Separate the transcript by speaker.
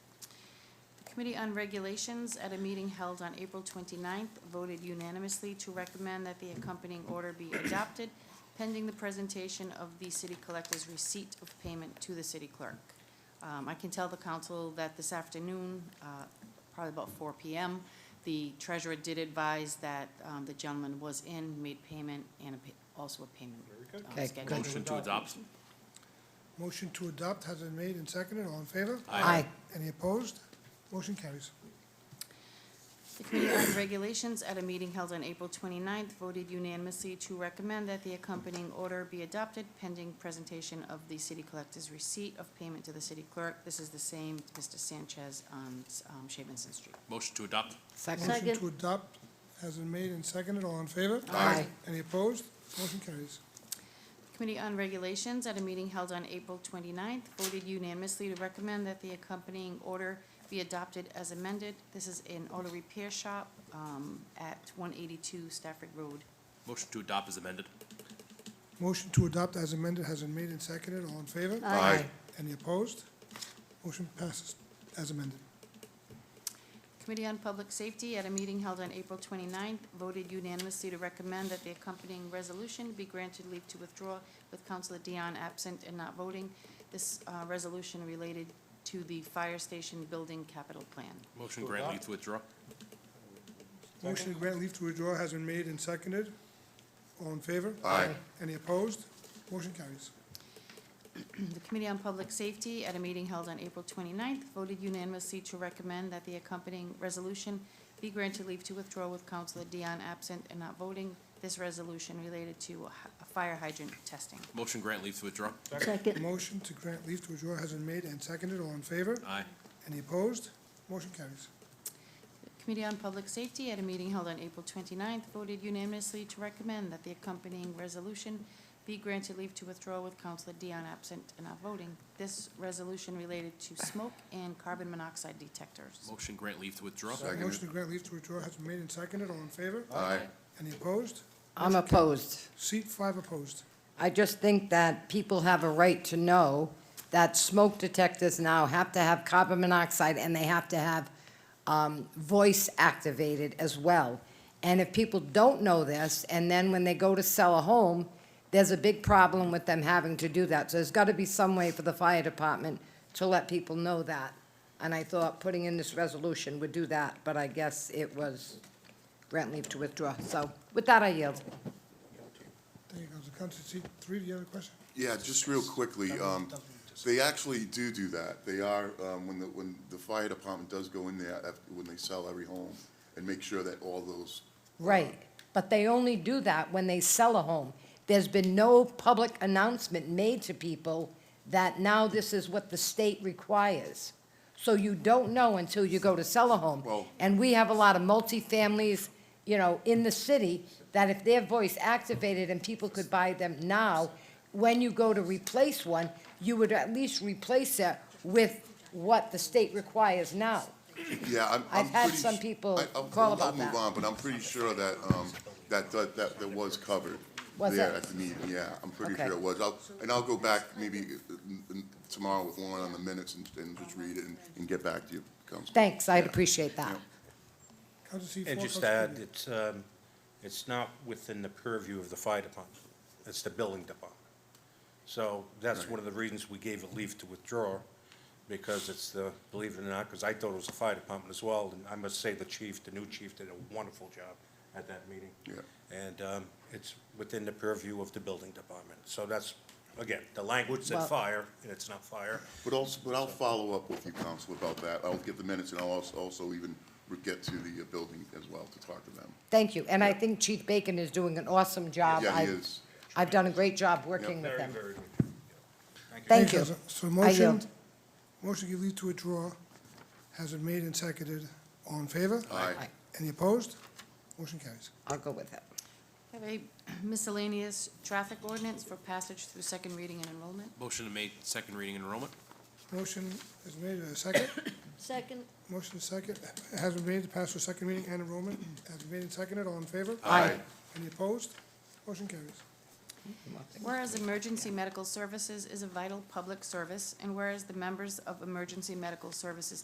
Speaker 1: Committee on Regulations, at a meeting held on April 29th, voted unanimously to recommend that the accompanying order be adopted pending the presentation of the city collector's receipt of payment to the city clerk. Um, I can tell the council that this afternoon, uh, probably about 4 PM, the treasurer did advise that um, the gentleman was in, made payment, and a pa- also a payment.
Speaker 2: good.
Speaker 1: um,
Speaker 3: Okay,
Speaker 1: schedule.
Speaker 3: good.
Speaker 4: Motion to adopt?
Speaker 2: Motion to adopt has been made and seconded. All in favor?
Speaker 3: Aye.
Speaker 2: Any opposed? Motion carries.
Speaker 1: The Committee on Regulations, at a meeting held on April 29th, voted unanimously to recommend that the accompanying order be adopted pending presentation of the city collector's receipt of payment to the city clerk. This is the same, Mr. Sanchez on um, Shavenson Street.
Speaker 4: Motion to adopt?
Speaker 3: Second.
Speaker 2: Motion to adopt has been made and seconded. All in favor?
Speaker 3: Aye.
Speaker 2: Any opposed? Motion carries.
Speaker 1: Committee on Regulations, at a meeting held on April 29th, voted unanimously to recommend that the accompanying order be adopted as amended. This is an auto repair shop um, at 182 Stafford Road.
Speaker 4: Motion to adopt is amended?
Speaker 2: Motion to adopt as amended has been made and seconded. All in favor?
Speaker 3: Aye.
Speaker 2: Any opposed? Motion passes as amended.
Speaker 1: Committee on Public Safety, at a meeting held on April 29th, voted unanimously to recommend that the accompanying resolution be granted leave to withdraw with Counselor Dion absent and not voting. This uh, resolution related to the fire station building capital plan.
Speaker 4: Motion grant leave to withdraw?
Speaker 2: Motion to grant leave to withdraw has been made and seconded. All in favor?
Speaker 3: Aye.
Speaker 2: Any opposed? Motion carries.
Speaker 1: The Committee on Public Safety, at a meeting held on April 29th, voted unanimously to recommend that the accompanying resolution be granted leave to withdraw with Counselor Dion absent and not voting. This resolution related to a hy- a fire hydrant testing.
Speaker 4: Motion grant leave to withdraw?
Speaker 5: Second.
Speaker 2: Motion to grant leave to withdraw has been made and seconded. All in favor?
Speaker 4: Aye.
Speaker 2: Any opposed? Motion carries.
Speaker 1: Committee on Public Safety, at a meeting held on April 29th, voted unanimously to recommend that the accompanying resolution be granted leave to withdraw with Counselor Dion absent and not voting. This resolution related to smoke and carbon monoxide detectors.
Speaker 4: Motion grant leave to withdraw?
Speaker 2: Motion to grant leave to withdraw has been made and seconded. All in favor?
Speaker 6: Aye.
Speaker 2: Any opposed?
Speaker 3: I'm opposed.
Speaker 2: Seat five opposed.
Speaker 3: I just think that people have a right to know that smoke detectors now have to have carbon monoxide and they have to have um, voice activated as well. And if people don't know this, and then when they go to sell a home, there's a big problem with them having to do that. So there's got to be some way for the fire department to let people know that. And I thought putting in this resolution would do that, but I guess it was grant leave to withdraw. So with that, I yield.
Speaker 2: There you go. The council seat three, do you have a question?
Speaker 6: Yeah, just real quickly, um, they actually do do that. They are, um, when the, when the fire department does go in there, af- when they sell every home, and make sure that all those.
Speaker 3: Right, but they only do that when they sell a home. There's been no public announcement made to people that now this is what the state requires. So you don't know until you go to sell a home.
Speaker 6: Well-
Speaker 3: And we have a lot of multifamilies, you know, in the city, that if their voice activated and people could buy them now, when you go to replace one, you would at least replace it with what the state requires now.
Speaker 6: Yeah, I'm, I'm
Speaker 3: I've had
Speaker 6: pretty
Speaker 3: some
Speaker 6: su-
Speaker 3: people
Speaker 6: I- I'll-
Speaker 3: call about
Speaker 6: I'll
Speaker 3: that.
Speaker 6: move on, but I'm pretty sure that, um, that, that, that that was covered.
Speaker 3: Was
Speaker 6: There
Speaker 3: it?
Speaker 6: at the meeting, yeah, I'm pretty
Speaker 3: Okay.
Speaker 6: sure it was. I'll, and I'll go back maybe uh, n- n- tomorrow with Lauren on the minutes and, and just read it and, and get back to you, Councilman.
Speaker 3: Thanks, I'd appreciate that.
Speaker 2: Council seat four.
Speaker 7: And just
Speaker 2: Council
Speaker 7: add,
Speaker 2: Creighton.
Speaker 7: it's, um, it's not within the purview of the fire department. It's the building department. So that's one of the reasons we gave a leave to withdraw, because it's the, believe it or not, because I thought it was the fire department as well, and I must say the chief, the new chief, did a wonderful job at that meeting.
Speaker 6: Yeah.
Speaker 7: And um, it's within the purview of the building department. So that's, again, the language said
Speaker 3: Well-
Speaker 7: fire, and it's not fire.
Speaker 6: But also, but I'll follow up with you, Council, about that. I'll get the minutes, and I'll als- also even re- get to the uh, building as well to talk to them.
Speaker 3: Thank you, and I think Chief Bacon is doing an awesome job.
Speaker 6: Yeah, he
Speaker 3: I've-
Speaker 6: is.
Speaker 3: I've done a great job working with
Speaker 7: Very,
Speaker 3: him.
Speaker 7: very good.
Speaker 3: Thank you.
Speaker 2: Council. So
Speaker 3: I
Speaker 2: motion,
Speaker 3: yield.
Speaker 2: motion to give leave to withdraw has been made and seconded. All in favor?
Speaker 6: Aye.
Speaker 2: Any opposed? Motion carries.
Speaker 3: I'll go with it.
Speaker 1: Have a miscellaneous traffic ordinance for passage through second reading and enrollment.
Speaker 4: Motion to make second reading and enrollment?
Speaker 2: Motion is made, a second.
Speaker 5: Second.
Speaker 2: Motion is second, has been made to pass for second reading and enrollment. Has been made and seconded. All in favor?
Speaker 6: Aye.
Speaker 2: Any opposed? Motion carries.
Speaker 1: Whereas emergency medical services is a vital public service, and whereas the members of emergency medical services